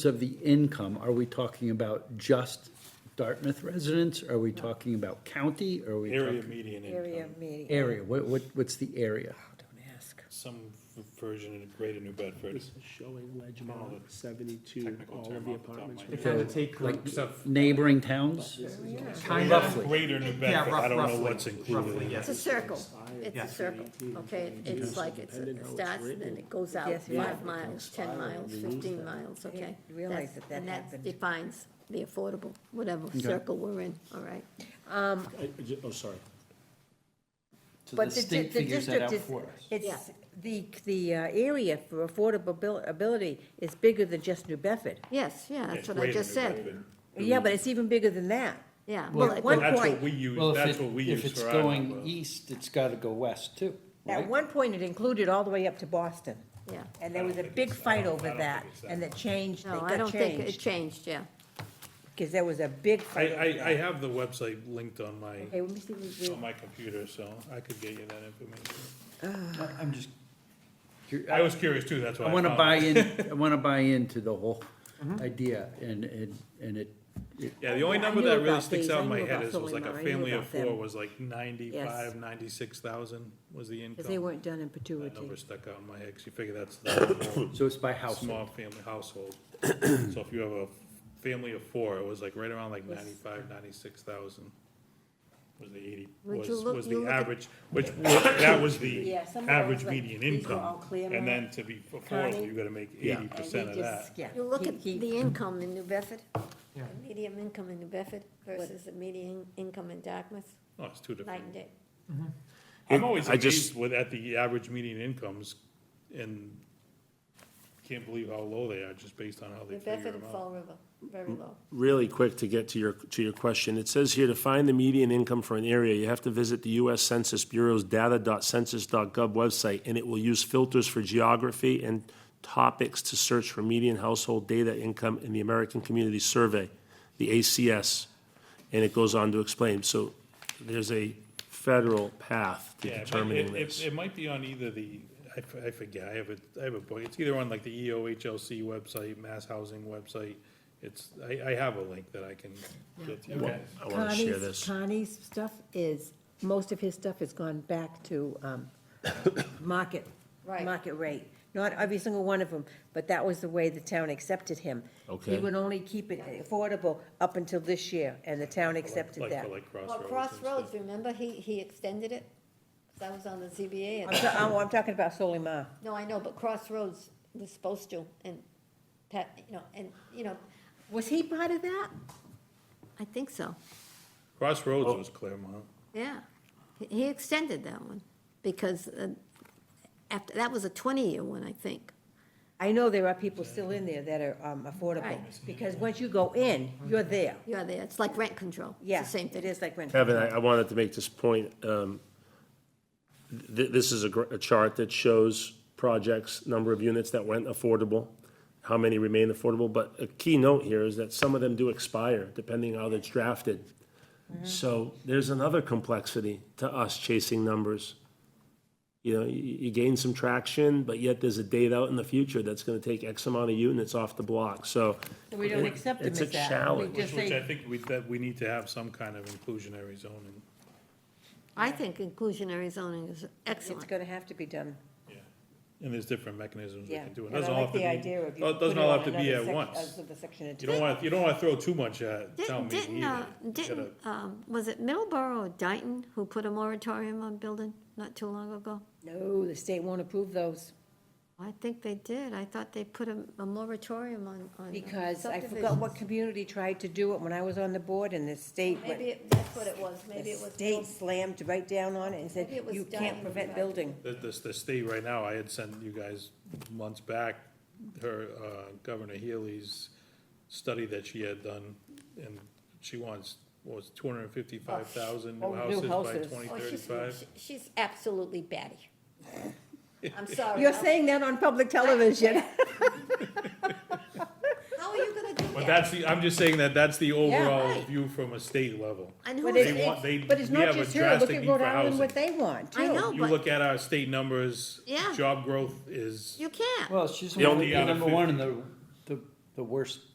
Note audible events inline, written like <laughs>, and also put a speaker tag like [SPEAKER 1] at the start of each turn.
[SPEAKER 1] of the income, are we talking about just Dartmouth residents? Are we talking about county? Are we
[SPEAKER 2] Area
[SPEAKER 1] talking?
[SPEAKER 2] median
[SPEAKER 3] area
[SPEAKER 2] income,
[SPEAKER 3] meeting.
[SPEAKER 1] Area, what, what, what's the area?
[SPEAKER 3] Don't ask.
[SPEAKER 2] some v- version in Greater New Bedford.
[SPEAKER 4] This is showing
[SPEAKER 2] All
[SPEAKER 4] Ledgmont,
[SPEAKER 2] the
[SPEAKER 4] seventy-two,
[SPEAKER 2] technical
[SPEAKER 4] all
[SPEAKER 2] term
[SPEAKER 4] of the
[SPEAKER 2] off the top of
[SPEAKER 4] apartments.
[SPEAKER 2] my
[SPEAKER 4] were
[SPEAKER 2] head.
[SPEAKER 5] Kind
[SPEAKER 4] built.
[SPEAKER 5] of take groups of,
[SPEAKER 1] Neighboring towns?
[SPEAKER 5] kind of,
[SPEAKER 1] Roughly.
[SPEAKER 2] Greater New
[SPEAKER 5] yeah,
[SPEAKER 2] Bedford, I
[SPEAKER 5] rough-
[SPEAKER 2] don't know
[SPEAKER 5] roughly,
[SPEAKER 2] what's included.
[SPEAKER 5] roughly,
[SPEAKER 2] in it.
[SPEAKER 5] yes.
[SPEAKER 6] It's a circle, it's
[SPEAKER 5] Yeah.
[SPEAKER 6] a circle, okay? It's like, it's, it starts and then it goes out
[SPEAKER 3] Yes, yeah.
[SPEAKER 6] five miles, ten miles, fifteen miles, okay?
[SPEAKER 3] I didn't realize
[SPEAKER 6] That's-
[SPEAKER 3] that that happened.
[SPEAKER 6] And that defines the affordable, whatever circle we're in, all right?
[SPEAKER 4] I- I ju- Oh, sorry.
[SPEAKER 7] So the
[SPEAKER 3] But the, di-
[SPEAKER 7] state
[SPEAKER 3] the
[SPEAKER 7] figures that out
[SPEAKER 3] district is,
[SPEAKER 7] for us.
[SPEAKER 3] it's, the, the uh, area for affordability is bigger than just New Bedford.
[SPEAKER 6] Yes, yeah, that's what I
[SPEAKER 2] Greater
[SPEAKER 6] just
[SPEAKER 2] New
[SPEAKER 6] said,
[SPEAKER 2] Bedford.
[SPEAKER 3] Yeah, but it's even bigger than that.
[SPEAKER 6] yeah.
[SPEAKER 7] Well,
[SPEAKER 6] well,
[SPEAKER 3] At
[SPEAKER 6] it-
[SPEAKER 3] one
[SPEAKER 2] That's what
[SPEAKER 3] point,
[SPEAKER 2] we use,
[SPEAKER 7] Well,
[SPEAKER 2] that's
[SPEAKER 7] if
[SPEAKER 2] what
[SPEAKER 7] it,
[SPEAKER 2] we
[SPEAKER 7] if
[SPEAKER 2] use
[SPEAKER 7] it's
[SPEAKER 2] for our
[SPEAKER 7] going
[SPEAKER 2] number.
[SPEAKER 7] east, it's gotta go west too,
[SPEAKER 3] at
[SPEAKER 7] right?
[SPEAKER 3] one point, it included all the way up to Boston.
[SPEAKER 6] Yeah.
[SPEAKER 3] And there was a
[SPEAKER 2] think
[SPEAKER 3] big
[SPEAKER 2] it's that.
[SPEAKER 3] fight
[SPEAKER 2] I don't
[SPEAKER 3] over
[SPEAKER 2] think
[SPEAKER 3] that,
[SPEAKER 2] it's that.
[SPEAKER 3] and that changed, they
[SPEAKER 6] No, I
[SPEAKER 3] got
[SPEAKER 6] don't think, it
[SPEAKER 3] changed,
[SPEAKER 6] changed, yeah.
[SPEAKER 3] because there was a big
[SPEAKER 2] I,
[SPEAKER 3] fight.
[SPEAKER 2] I, I have the website linked on my,
[SPEAKER 3] Okay, let me see, what we-
[SPEAKER 2] on my computer, so I could get you that information.
[SPEAKER 7] I- I'm just,
[SPEAKER 2] I was curious too, that's why.
[SPEAKER 1] I want to
[SPEAKER 2] found
[SPEAKER 1] buy
[SPEAKER 2] it. <laughs>
[SPEAKER 1] in, I want to buy into the whole
[SPEAKER 7] Mm-hmm.
[SPEAKER 1] idea and, and, and it, it-
[SPEAKER 2] Yeah, the only
[SPEAKER 3] Yeah, I
[SPEAKER 2] number
[SPEAKER 3] knew
[SPEAKER 2] that
[SPEAKER 3] about
[SPEAKER 2] really sticks
[SPEAKER 3] these.
[SPEAKER 2] out
[SPEAKER 3] I
[SPEAKER 2] in my
[SPEAKER 3] knew
[SPEAKER 2] head
[SPEAKER 3] about
[SPEAKER 2] is was like a
[SPEAKER 3] Solimar. I knew
[SPEAKER 2] family of
[SPEAKER 3] about them.
[SPEAKER 2] four was like ninety-five, ninety-six thousand was the income.
[SPEAKER 3] because they weren't done in
[SPEAKER 2] That
[SPEAKER 3] perpetuity.
[SPEAKER 2] number stuck out in my head, 'cause you figure that's the
[SPEAKER 1] so it's by
[SPEAKER 2] whole
[SPEAKER 1] household.
[SPEAKER 2] small family household. So if you have a family of four, it was like right around like
[SPEAKER 3] Yes.
[SPEAKER 2] ninety-five, ninety-six thousand was the eighty,
[SPEAKER 6] Would
[SPEAKER 2] was,
[SPEAKER 6] you look-
[SPEAKER 2] was
[SPEAKER 6] you
[SPEAKER 2] the
[SPEAKER 6] look at-
[SPEAKER 2] average, which, was- that was the
[SPEAKER 3] Yeah, some of
[SPEAKER 2] average
[SPEAKER 3] those, like,
[SPEAKER 2] median
[SPEAKER 3] these were all
[SPEAKER 2] income.
[SPEAKER 3] clear
[SPEAKER 2] And then
[SPEAKER 3] mark,
[SPEAKER 2] to be affordable,
[SPEAKER 3] Connie.
[SPEAKER 2] you gotta make
[SPEAKER 1] Yeah.
[SPEAKER 2] eighty
[SPEAKER 3] And
[SPEAKER 2] percent of
[SPEAKER 3] they
[SPEAKER 2] that.
[SPEAKER 3] just- yeah,
[SPEAKER 6] You look
[SPEAKER 3] he-
[SPEAKER 6] at
[SPEAKER 3] he-
[SPEAKER 6] the income in New Bedford,
[SPEAKER 7] Yeah.
[SPEAKER 6] the median income in New Bedford versus the median income in Dartmouth,
[SPEAKER 2] Oh, it's two
[SPEAKER 6] night
[SPEAKER 2] different.
[SPEAKER 6] and day.
[SPEAKER 2] I'm always
[SPEAKER 8] I just-
[SPEAKER 2] amazed with, at the average median incomes and can't believe how low they are just based on how they
[SPEAKER 6] New
[SPEAKER 2] figure
[SPEAKER 6] Bedford
[SPEAKER 2] them
[SPEAKER 6] and
[SPEAKER 2] out.
[SPEAKER 6] Fall River,
[SPEAKER 3] Mm.
[SPEAKER 6] very low.
[SPEAKER 8] really quick to get to your, to your question. It says here, to find the median income for an area, you have to visit the U.S. Census Bureau's data.census.gov website, and it will use filters for geography and topics to search for median household data income in the American Community Survey, the ACS. And it goes on to explain, so there's a federal path to
[SPEAKER 2] Yeah, it might-
[SPEAKER 8] determining
[SPEAKER 2] it- it-
[SPEAKER 8] this.
[SPEAKER 2] It might be on either the, I f- I forget, I have a, I have a book, it's either on like the E EOHLC website, Mass Housing website. It's, I, I have a link that I can get to you guys.
[SPEAKER 8] I want to share
[SPEAKER 3] Connie's-
[SPEAKER 8] this.
[SPEAKER 3] Connie's stuff is, most of his stuff has gone back to um, market,
[SPEAKER 6] Right.
[SPEAKER 3] market rate. Not every single one of them, but that was the way the town accepted him. He
[SPEAKER 8] Okay.
[SPEAKER 3] would only keep it affordable up until this year, and the town accepted
[SPEAKER 2] Like,
[SPEAKER 3] that.
[SPEAKER 2] for like
[SPEAKER 6] Well,
[SPEAKER 2] Crossroads and
[SPEAKER 6] Crossroads,
[SPEAKER 2] stuff.
[SPEAKER 6] remember, he, he extended it, 'Cause I was on the ZBA,
[SPEAKER 3] I'm,
[SPEAKER 6] and,
[SPEAKER 3] ta- oh, I'm talking about Solimar.
[SPEAKER 6] no, I know, but Crossroads was supposed to, and Pat, you know, and, you know,
[SPEAKER 3] Was he part of that?
[SPEAKER 6] I think so,
[SPEAKER 2] Crossroads was Claremont.
[SPEAKER 6] yeah. He- He extended that one, because uh, after, that was a twenty-year one, I think.
[SPEAKER 3] I know there are people still in there that are um, affordable,
[SPEAKER 6] Right.
[SPEAKER 3] because once you go in, you're there.
[SPEAKER 6] Yeah, there, it's like rent control, it's
[SPEAKER 3] Yeah,
[SPEAKER 6] the same
[SPEAKER 3] it
[SPEAKER 6] thing.
[SPEAKER 3] is like rent.
[SPEAKER 8] Kevin, I, I wanted to make this point. um, th- This is a, gr- a chart that shows projects, number of units that went affordable, how many remain affordable, but a key note here is that some of them do expire, depending how it's drafted. So there's another complexity to us chasing numbers. You know, you, you gain some traction, but yet there's a date out in the future that's gonna take X amount of units off the block, so.
[SPEAKER 3] We don't accept them
[SPEAKER 8] It's a
[SPEAKER 3] as that. We
[SPEAKER 8] challenge.
[SPEAKER 3] just
[SPEAKER 2] Which
[SPEAKER 3] say-
[SPEAKER 2] I think we, that we need to have some kind of inclusionary zoning.
[SPEAKER 6] I think inclusionary zoning is
[SPEAKER 3] It's
[SPEAKER 6] excellent.
[SPEAKER 3] gonna have to be done.
[SPEAKER 2] Yeah, And there's different mechanisms we
[SPEAKER 3] Yeah,
[SPEAKER 2] can do. It
[SPEAKER 3] and I
[SPEAKER 2] doesn't all
[SPEAKER 3] like
[SPEAKER 2] have to be-
[SPEAKER 3] the
[SPEAKER 2] oh,
[SPEAKER 3] idea of you.
[SPEAKER 2] It doesn't
[SPEAKER 3] put it
[SPEAKER 2] all
[SPEAKER 3] on
[SPEAKER 2] have to be
[SPEAKER 3] another
[SPEAKER 2] at
[SPEAKER 3] sec-
[SPEAKER 2] once.
[SPEAKER 3] as of the section in
[SPEAKER 2] You don't
[SPEAKER 3] two.
[SPEAKER 2] want, you don't want to throw too much at town
[SPEAKER 6] Didn't,
[SPEAKER 2] meeting
[SPEAKER 6] didn't, uh,
[SPEAKER 2] either. You
[SPEAKER 6] didn't,
[SPEAKER 2] gotta-
[SPEAKER 6] um, was it Middleborough or Dayton who put a moratorium on building not too long ago?
[SPEAKER 3] No, the state won't approve those,
[SPEAKER 6] I think they did. I thought they put a, a moratorium on, on. uh,
[SPEAKER 3] because I forgot what community tried to do it when I was on the board, and the state
[SPEAKER 6] subdivisions.
[SPEAKER 3] went.
[SPEAKER 6] Maybe it- that's what it was. Maybe
[SPEAKER 3] The
[SPEAKER 6] it was.
[SPEAKER 3] state slammed right down on it and said,
[SPEAKER 6] Maybe it was
[SPEAKER 3] you can't
[SPEAKER 6] dying,
[SPEAKER 3] prevent
[SPEAKER 6] right.
[SPEAKER 3] building.
[SPEAKER 2] The, the, the state right now, I had sent you guys months back, her, uh, Governor Healy's study that she had done, and she wants, what was two hundred and fifty-five thousand
[SPEAKER 3] Oh,
[SPEAKER 2] new
[SPEAKER 3] new
[SPEAKER 2] houses by
[SPEAKER 3] houses.
[SPEAKER 2] twenty
[SPEAKER 6] Oh, she's,
[SPEAKER 2] thirty-five?
[SPEAKER 6] she- she's absolutely batty. I'm sorry.
[SPEAKER 3] You're
[SPEAKER 6] I'm-
[SPEAKER 3] saying that on public television.
[SPEAKER 6] How are you gonna do that?
[SPEAKER 2] But that's the, I'm just saying that that's the overall
[SPEAKER 6] Right.
[SPEAKER 2] view from a state level.
[SPEAKER 6] And
[SPEAKER 3] <laughs> But
[SPEAKER 6] who's,
[SPEAKER 2] They
[SPEAKER 3] it's-
[SPEAKER 2] want- they-
[SPEAKER 3] But it's
[SPEAKER 2] we
[SPEAKER 3] not
[SPEAKER 2] have a
[SPEAKER 3] just her, look
[SPEAKER 2] drastic
[SPEAKER 3] at
[SPEAKER 2] need
[SPEAKER 3] Rhode
[SPEAKER 2] for
[SPEAKER 3] Island, what
[SPEAKER 2] housing.
[SPEAKER 3] they want, too.
[SPEAKER 6] I know,
[SPEAKER 2] You look
[SPEAKER 6] but
[SPEAKER 2] at our state numbers.
[SPEAKER 6] Yeah.
[SPEAKER 2] Job growth is
[SPEAKER 6] you can't.
[SPEAKER 7] Well, she's
[SPEAKER 8] The
[SPEAKER 7] number
[SPEAKER 8] only
[SPEAKER 7] the number
[SPEAKER 2] other
[SPEAKER 7] one in the, the, the
[SPEAKER 1] the worst